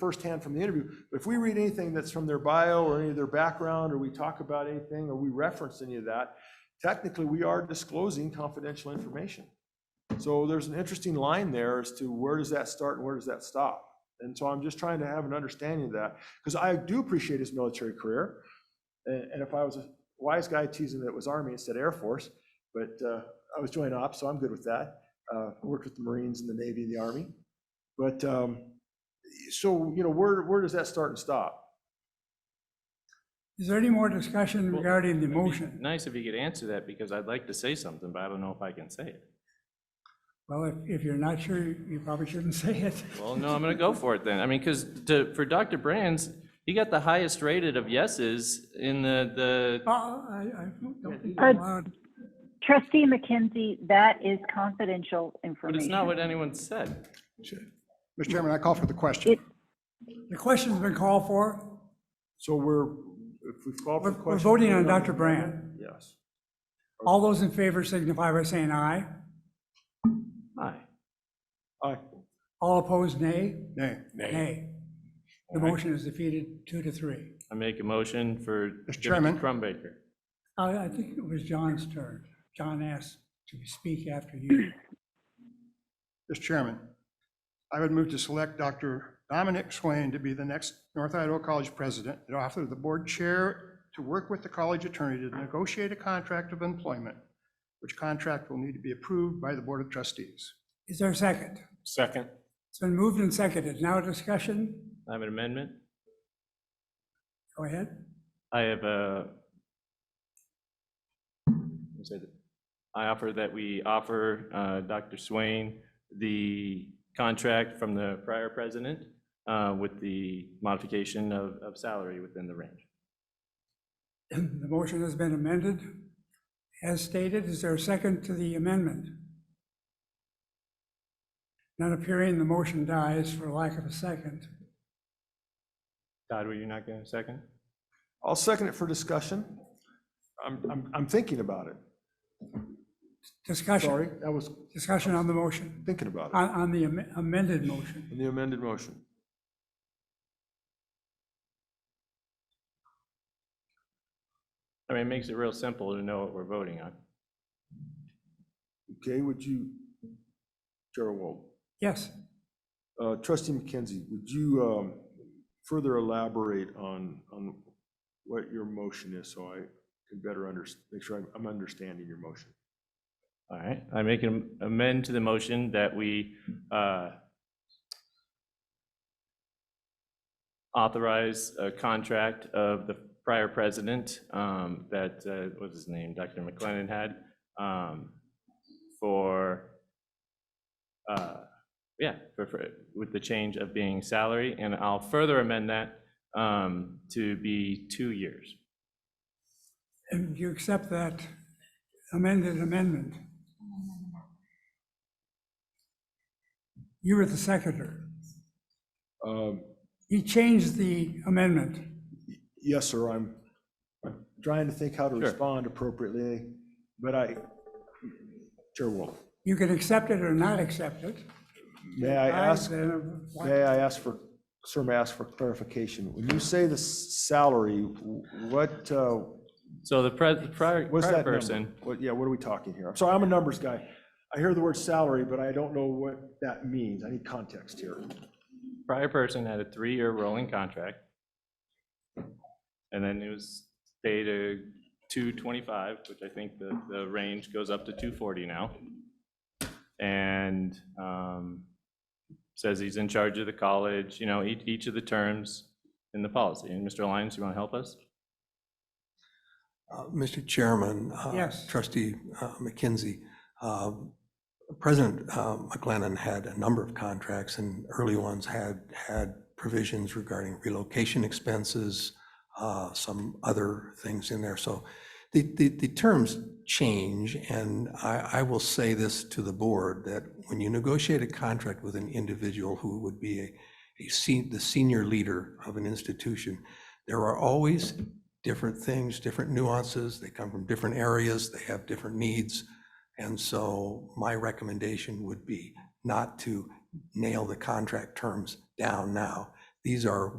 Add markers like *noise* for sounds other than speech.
firsthand from the interview. But if we read anything that's from their bio or any of their background, or we talk about anything, or we reference any of that, technically, we are disclosing confidential information. So there's an interesting line there as to where does that start and where does that stop? And so I'm just trying to have an understanding of that, because I do appreciate his military career. And, and if I was a wise guy teasing that it was Army instead of Air Force, but uh, I was joint ops, so I'm good with that. Uh, I Worked with the Marines and the Navy and the Army. But, um, so, you know, where, where does that start and stop? Is there any more discussion Well, regarding the it'd be motion? Nice if you could answer that, because I'd like to say something, but I don't know if I can say it. Well, if, if you're not sure, you probably shouldn't *laughs* say it. Well, no, I'm gonna go for it then. I mean, because to, for Dr. Brands, he got the highest rated of yeses in the, Uh, the, I, I don't think Uh, I'm allowed. Trustee McKenzie, that is confidential but information. it's not what anyone said. Mr. Chairman, I call for the question. It- The question's been called for. So we're, if we've called for We're the we're question. voting on Dr. Brand. Yes. All those in favor signify by saying aye. Aye. Aye. All opposed, nay. Nay. Nay. The motion is defeated two to three. I make a motion for Mr. Timothy Chairman. Crumbaker. I, I think it was John's turn. John asked to speak after you. Mr. Chairman, I would move to select Dr. Dominic Swain to be the next North Idaho College president and author the board chair to work with the college attorney to negotiate a contract of employment, which contract will need to be approved by the Board of Trustees. Is there a second? Second. It's been moved and seconded. Now discussion. I have an amendment. Go ahead. I have a. what is it? I offer that we offer uh, Dr. Swain the contract from the prior president uh, with the modification of, of salary within the range. The motion has been amended. As stated, is there a second to the amendment? Not appearing, the motion dies for lack of a second. Todd, were you not going to second? I'll second it for discussion. I'm, I'm, I'm thinking about it. Discussion, Sorry, I was discussion on the motion, thinking about it on, on the am- amended motion. in the amended motion. I mean, it makes it real simple to know what we're voting on. Okay, would you, Gerald Wald, Yes, uh, trustee McKenzie, would you um, further elaborate on, on what your motion is so I can better under, make sure I'm- I'm understanding your motion? All right, I make an amend to the motion that we uh, authorize a contract of the prior president um, that, uh, what was his name, Dr. McLennan had, um, for, uh, yeah, for- for, with the change of being salary, and I'll further amend that um, to be two years. and you accept that amended amendment. You were the seconder. Um, He changed the amendment. Yes, sir, I'm I'm trying to think how to Sure. respond appropriately, but I, Chair Wolf, Mm-hmm. You can accept it or not accept it. may I ask, then what- may I ask for, sir, may I ask for clarification? When you say the s- salary, what, uh, So the pres- the prior what's prior that number? person. What, yeah, what are we talking here? I'm sorry, I'm a numbers guy. I hear the word salary, but I don't know what that means. I need context here. prior person had a three-year rolling contract. And then it was paid a two twenty-five, which I think the, the range goes up to two forty now. And, um, says he's in charge of the college, you know, each, each of the terms in the policy. And Mr. Lyons, you want to help us? Uh, Mr. Chairman. uh, Yes. Trustee uh, McKenzie, uh, President uh, McLennan had a number of contracts, and early ones had, had provisions regarding relocation expenses, uh, some other things in there. So the, the, the terms change, and I, I will say this to the board, that when you negotiate a contract with an individual who would be a, a se- the senior leader of an institution, there are always different things, different nuances, they come from different areas, they have different needs. And so my recommendation would be not to nail the contract terms down now. These are